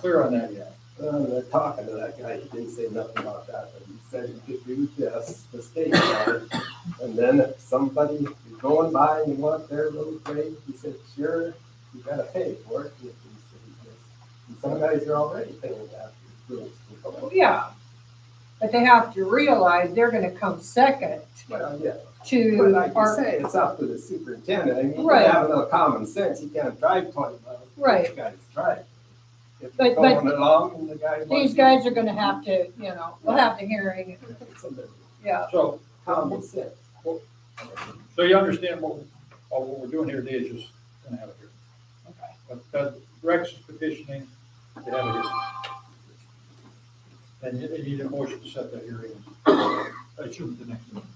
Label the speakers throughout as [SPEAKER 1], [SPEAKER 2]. [SPEAKER 1] clear on that yet.
[SPEAKER 2] Uh, that talking to that guy, he didn't say nothing about that, but he said you could do this, the state yard. And then if somebody is going by and you want their little grave, he said, sure, you gotta pay for it. He said, "Yes." And some guys are already paying that. for the rules.
[SPEAKER 3] Yeah. But they have to realize they're gonna come second
[SPEAKER 2] Well, yeah, but
[SPEAKER 3] to
[SPEAKER 2] like you
[SPEAKER 3] our,
[SPEAKER 2] say, it's up to the superintendent. I mean, you
[SPEAKER 3] Right.
[SPEAKER 2] gotta have a little common sense. You can't drive twenty miles.
[SPEAKER 3] Right.
[SPEAKER 2] You guys drive. If you're
[SPEAKER 3] But- but
[SPEAKER 2] going along and the guy.
[SPEAKER 3] these
[SPEAKER 2] wants-
[SPEAKER 3] guys are gonna have to, you know, we'll have the hearing,
[SPEAKER 2] It's a little
[SPEAKER 3] yeah.
[SPEAKER 1] So,
[SPEAKER 2] Common sense.
[SPEAKER 1] so you understand what, uh, what we're doing here today is just gonna have it here.
[SPEAKER 3] Okay.
[SPEAKER 1] But, but Rex is petitioning to have it here. And you you need a motion to set that hearing. I assume at the next meeting.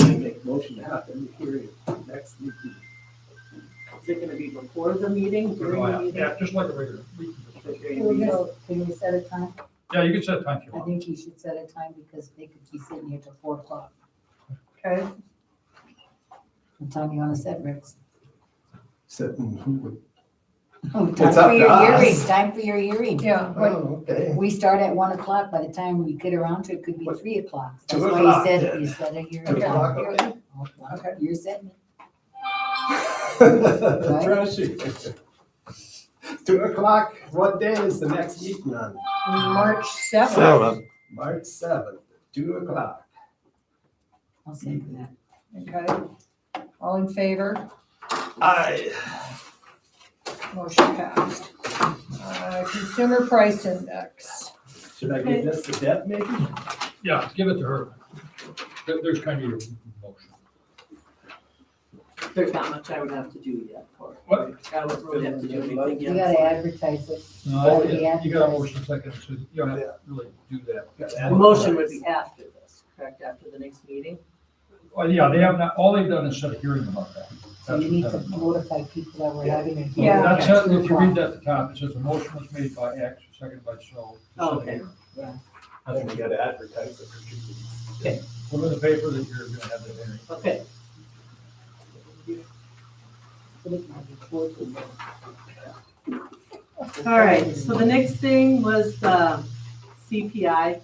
[SPEAKER 2] I make motion to have them hearing next week.
[SPEAKER 4] Is it gonna be before the meeting, during the meeting?
[SPEAKER 1] Oh, Yeah, just like a regular. we can just-
[SPEAKER 4] During the
[SPEAKER 5] Can
[SPEAKER 4] meeting?
[SPEAKER 5] you- can you set a time?
[SPEAKER 1] Yeah, you can set a time if you
[SPEAKER 5] I
[SPEAKER 1] want.
[SPEAKER 5] think you should set a time because they could be sitting here till four o'clock.
[SPEAKER 3] Okay,
[SPEAKER 5] What time you wanna set, Rex?
[SPEAKER 2] Sitting, "Mm, who would?
[SPEAKER 5] Oh,
[SPEAKER 2] It's
[SPEAKER 5] time
[SPEAKER 2] up
[SPEAKER 5] for
[SPEAKER 2] to
[SPEAKER 5] your
[SPEAKER 2] us.
[SPEAKER 5] hearing. Time for your hearing.
[SPEAKER 3] yeah, but
[SPEAKER 2] Oh, okay.
[SPEAKER 5] We start at one o'clock. By the time we get around to it, could be
[SPEAKER 2] What?
[SPEAKER 5] three o'clock.
[SPEAKER 2] Two
[SPEAKER 5] That's why you
[SPEAKER 2] o'clock,
[SPEAKER 5] said,
[SPEAKER 2] yeah.
[SPEAKER 5] you set a hearing.
[SPEAKER 2] Two o'clock,
[SPEAKER 5] time.
[SPEAKER 2] okay.
[SPEAKER 5] Okay, You're setting it.
[SPEAKER 2] Oh, Pressure. Two o'clock, what day is the next meeting on?
[SPEAKER 3] March seventh.
[SPEAKER 6] Seven.
[SPEAKER 2] March seventh, two o'clock.
[SPEAKER 5] I'll second that.
[SPEAKER 3] Okay, all in favor,
[SPEAKER 2] Aye.
[SPEAKER 3] motion passed. Uh, Consumer Price Index.
[SPEAKER 2] Should I give this to Deb maybe?
[SPEAKER 1] Yeah, give it to her. There- There's kind of your motion.
[SPEAKER 4] There's not much I would have to do yet for.
[SPEAKER 1] What?
[SPEAKER 4] I would really have to do anything
[SPEAKER 5] You
[SPEAKER 4] yet.
[SPEAKER 5] gotta advertise it
[SPEAKER 1] No,
[SPEAKER 5] Oh, yeah.
[SPEAKER 1] you got a motion second, so you don't have to really do that.
[SPEAKER 4] The motion would be after this, correct, after the next meeting?
[SPEAKER 1] Well, yeah, they have not, all they've done is set a hearing about that.
[SPEAKER 5] So you
[SPEAKER 1] That's
[SPEAKER 5] need
[SPEAKER 1] what
[SPEAKER 5] to
[SPEAKER 1] that-
[SPEAKER 5] notify people that we're having a
[SPEAKER 3] Yeah.
[SPEAKER 5] hearing.
[SPEAKER 1] That's,
[SPEAKER 5] at
[SPEAKER 1] it.
[SPEAKER 5] two
[SPEAKER 1] if you read
[SPEAKER 5] o'clock.
[SPEAKER 1] that at the top, it says a motion was made by X, seconded by so. to set a
[SPEAKER 4] Okay.
[SPEAKER 1] hearing."
[SPEAKER 5] Yeah.
[SPEAKER 2] I think we gotta advertise it for two weeks.
[SPEAKER 1] Put in the paper that you're gonna have that hearing.
[SPEAKER 4] Okay,
[SPEAKER 5] Put it on the fourth and then-
[SPEAKER 4] all right, so the next thing was the CPI.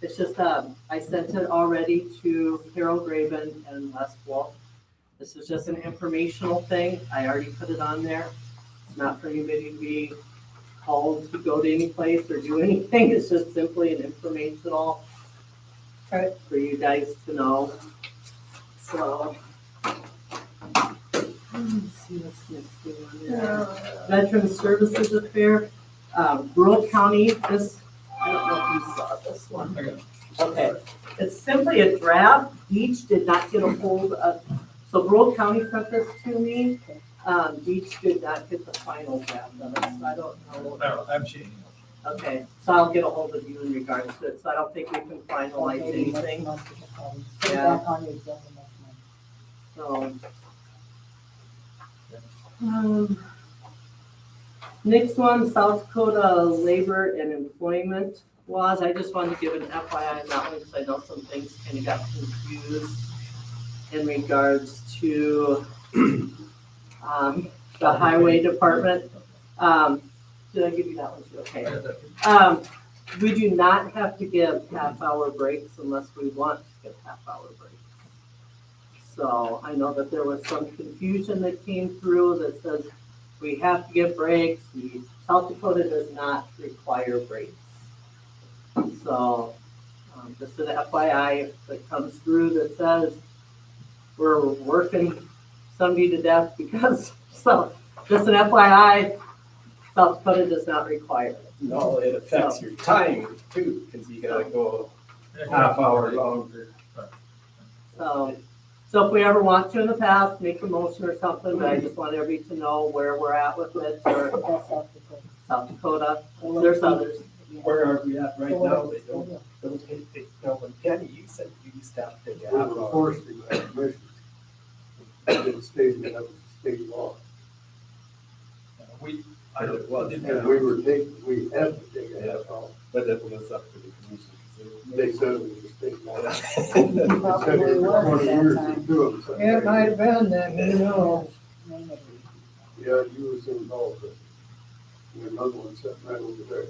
[SPEAKER 4] It's just, um, I sent it already to Harold Raven and Les Wolf. This is just an informational thing, I already put it on there. It's not for anybody to be called to go to any place or do anything, it's just simply an informational
[SPEAKER 3] Okay,
[SPEAKER 4] for you guys to know. So. Let's see what's next thing on there. Veteran Services Affair, uh, rural county, this, I don't know if you saw this one.
[SPEAKER 1] I got it.
[SPEAKER 4] Okay, it's simply a draft, each did not get a hold of, so rural county sent this to me. Um, each did not get the final draft of it, so I don't know.
[SPEAKER 1] I don't know, I'm seeing.
[SPEAKER 4] Okay, so I'll get a hold of you in regards to it, so I don't think we can finalize
[SPEAKER 5] Maybe next
[SPEAKER 4] anything,
[SPEAKER 5] month we can call them. Put it
[SPEAKER 4] Yeah.
[SPEAKER 5] back on the agenda next month.
[SPEAKER 4] so. Um, Next one, South Dakota labor and employment laws. I just wanted to give an FYI on that one because I know some things kind of got confused in regards to um, the highway department. Um, Did I give you that one too?
[SPEAKER 1] I
[SPEAKER 4] Okay.
[SPEAKER 1] got that.
[SPEAKER 4] Um, we do not have to give half-hour breaks unless we want to give half-hour breaks. So I know that there was some confusion that came through that says we have to give breaks. The South Dakota does not require breaks. So, um, just an FYI, if it comes through that says we're working somebody to death because, so, just an FYI, South Dakota does not require it.
[SPEAKER 2] No, it affects your time too, because you gotta go
[SPEAKER 1] Yeah,
[SPEAKER 2] half hour longer.
[SPEAKER 4] So, so if we ever want to in the past, make a motion or something, but I just want everybody to know where we're at with it, or
[SPEAKER 5] That's South Dakota.
[SPEAKER 4] South Dakota, there's others.
[SPEAKER 5] Yeah.
[SPEAKER 2] Where are we at right
[SPEAKER 5] So
[SPEAKER 2] now?
[SPEAKER 5] what
[SPEAKER 2] They
[SPEAKER 5] is-
[SPEAKER 2] don't, don't take, they, no, but Kenny, you said you used to have to take a half
[SPEAKER 7] They were
[SPEAKER 2] hour.
[SPEAKER 7] forced to have measures. It stated that was state law.
[SPEAKER 1] We, I
[SPEAKER 2] But
[SPEAKER 1] don't,
[SPEAKER 2] it wasn't,
[SPEAKER 7] And we were taking, we had to take a half hour.
[SPEAKER 2] but it was up to the commission.
[SPEAKER 7] They said it was state law. They said
[SPEAKER 5] Probably
[SPEAKER 7] we were
[SPEAKER 5] was at
[SPEAKER 7] twenty
[SPEAKER 5] that
[SPEAKER 7] years to
[SPEAKER 5] time.
[SPEAKER 7] do them, so-
[SPEAKER 3] It might have been that, who knows?
[SPEAKER 5] Maybe.
[SPEAKER 7] Yeah, you was involved. and another one sitting right over there.